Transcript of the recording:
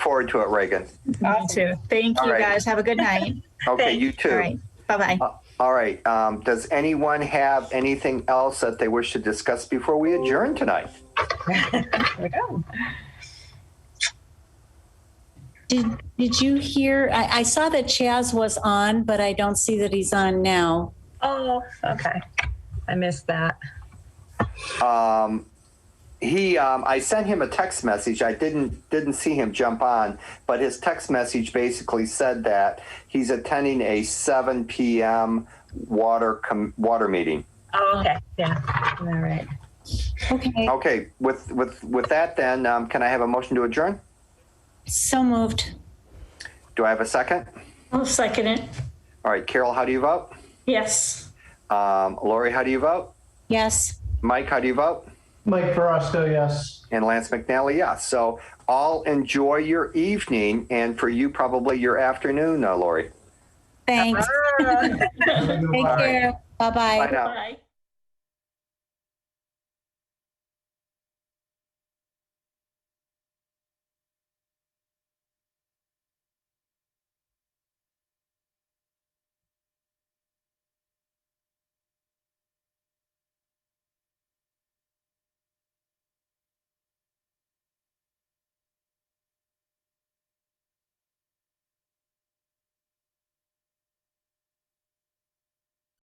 forward to it, Reagan. Me too. Thank All you, right. guys. Have a good night. Okay, Thanks. you All too. right. Bye-bye. All right. Um, does anyone have anything else that they wish to discuss before we adjourn tonight? There we go. Did, did you hear, I, I saw that Chaz was on, but I don't see that he's on now. Oh, okay. I missed that. Um, he, um, I sent him a text message. I didn't didn't see him jump on, but his text message basically said that he's attending a 7 p.m. water com- water meeting. Oh, okay. Yeah. All right. Okay, Okay. With with with that, then um, can I have a motion to adjourn? so moved. Do I have a second? I'll second it. All right, Carol, how do you vote? Yes. Um, Lori, how do you vote? Yes. Mike, how do you vote? Mike Verosco, yes. And Lance McNally, yes. So all enjoy your evening, and for you, probably your afternoon, uh, Lori. Thanks. Ah. Take Bye. care. Bye-bye. Bye now. Bye.